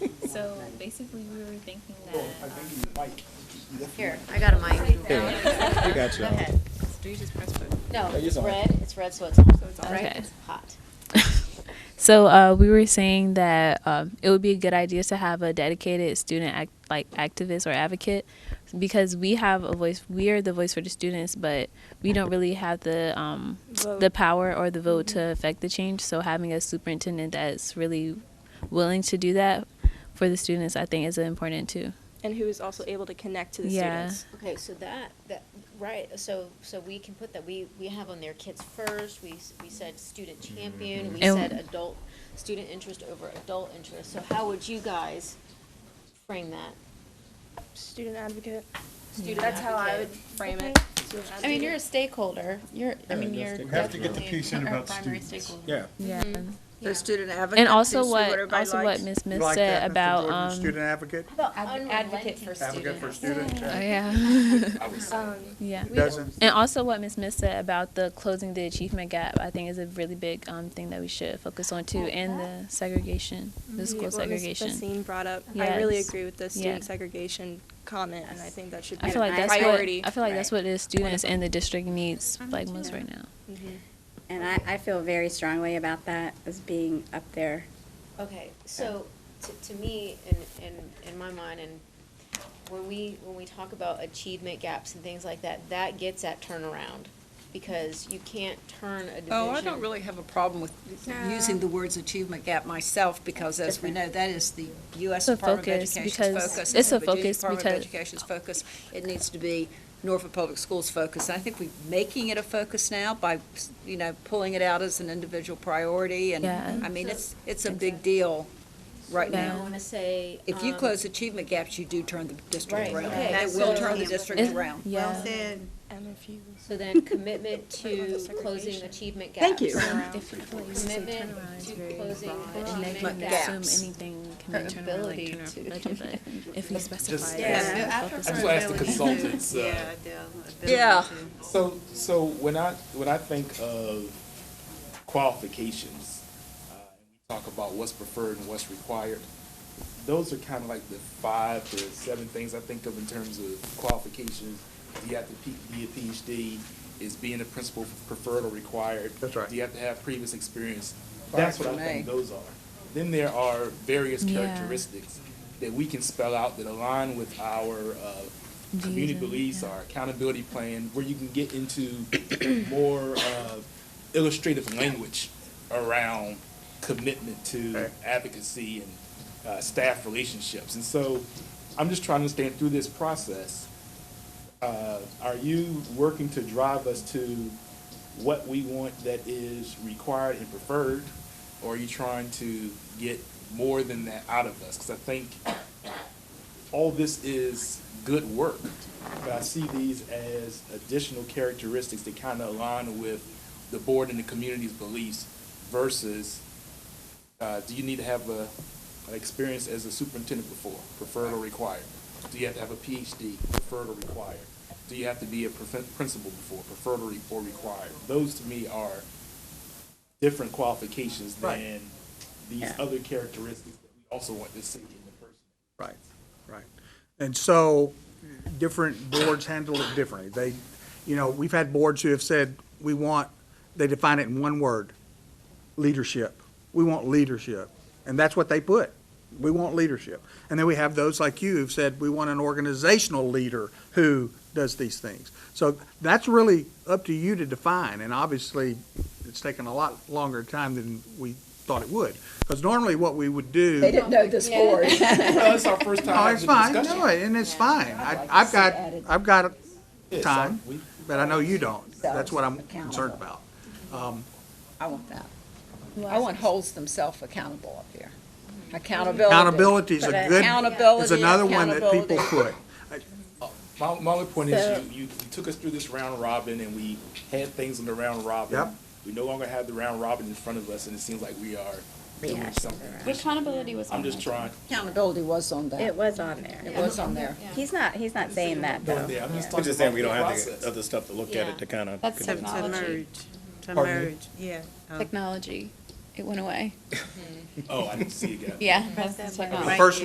So basically, we were thinking that. Here, I got a mic. Here, we got you. Okay. Do you just press button? No, it's it's on. red, it's red, so it's on, So it's on. right? Okay. It's hot. So uh, we were saying that um, it would be a good idea to have a dedicated student act- like activist or advocate because we have a voice. We are the voice for the students, but we don't really have the um, the Vote. power or the vote to affect the change. So having a superintendent that's really willing to do that for the students, I think, is important too. and who is also able to connect to the Yeah. students. Okay, so that, that, right, so, so we can put that, we, we have on there kids first, we, s- we said student Mm-hmm. champion, we And- said adult, student interest over adult interest. So how would you guys frame that? Student advocate. Student That's how I would advocate. frame it. Student I mean, advocate. you're a stakeholder, you're, I mean, Yeah, you're. just- We have to get the definitely piece in a about primary students. stakeholder. Mm-hmm. Yeah. Yeah. Mm-hmm. The student advocate. And also what also what Miss Smith said about um, Student advocate, Advocate for advocate for students, yeah. yeah Um, yeah. doesn't, And also, what Ms. Smith said about the closing the achievement gap, I think is a really big um, thing that we should focus on too, and the segregation, the yeah, school what Ms. segregation. Basine brought up. I really Yes. agree with the student segregation comment, and I think that should be I feel a like that's priority. what I feel like that's what the students Wonderful. and the district needs like most too. right now. And I, I feel very strongly about that as being up there. Okay, so to, to me, in, in, in my mind, and when we, when we talk about achievement gaps and things like that, that gets at turnaround. Because you can't turn a division. Oh, I don't really have a problem with using the words achievement gap myself, because as we know, that is the It's U.S. a Department of focus Education's because- focus. it's a the focus Department because- of Education's focus. It needs to be Norfolk Public Schools' focus. And I think we're making it a focus now by, you know, pulling it out as an individual priority. And, Yeah. I mean, it's, it's a big deal right I Yeah. now. wanna say. If you um, close achievement gaps, you do turn the district Right, around. okay, That will turn the district It- around. yeah, And if you So then commitment to About the closing segregation. achievement gaps. Thank you. Commitment to closing achievement and they gaps. can assume anything can Her be turned around, like ability turn to- around budget, but if we specify. Yeah. it, I focus just on- ask the consultants, uh, Yeah. So, so when I, when I think of qualifications, uh, and we talk about what's preferred and what's required, those are kind of like the five to seven things I think of in terms of qualifications. Do you have to P- be a PhD? Is being a principal preferred or required? That's right. Do you have to have previous experience? Right That's what I for me. think those are. Then there are various Yeah. characteristics that we can spell out that align with our uh, community and- beliefs, yeah. our accountability plan, where you can get into more uh, illustrative language around commitment to Right. advocacy and uh, staff relationships. And so I'm just trying to understand through this process, uh, are you working to drive us to what we want that is required and preferred? Or are you trying to get more than that out of us? Because I think all this is good work, but I see these as additional characteristics that kind of align with the board and the community's beliefs versus, uh, do you need to have a, an experience as a superintendent before, preferred or required? Do you have to have a PhD, preferred or required? Do you have to be a prof- principal before, preferred or re- or required? Those to me are different qualifications than these Yeah. other characteristics that we also want to see in the person. Right, right. And so, different boards handle it differently. They, you know, we've had boards who have said, we want, they define it in one word, leadership. We want leadership. And that's what they put. We want leadership. And then we have those like you who've said, we want an organizational leader who does these things. So that's really up to you to define, and obviously, it's taken a lot longer time than we thought it would. Because normally what we would do. They didn't know this board. Well, it's our first time Oh, having it's the fine, discussion. no, and it's fine. I, I've got, I've got Yeah, so time, we- but I know you don't. That's what I'm concerned Accountable. about. I want that. I want holds themselves accountable up here. Accountability. Accountability is a But good, accountability, is another one that people accountability. put. My, my only point is, you, you you took us through this round robin, and we had things in the round robin. Yep. We no longer have the round robin in front of us, and it seems like we are doing something. Accountability was I'm just trying, Accountability was on that. It was on there. It was on there. He's not, he's not saying that though. yeah, I'm just I'm talking just saying about we the don't have process. the other stuff to look at it to kind of. Technology. To Pardon me? merge, yeah. Technology, it went away. Oh, I didn't see it yet. Yeah, Press that button. The first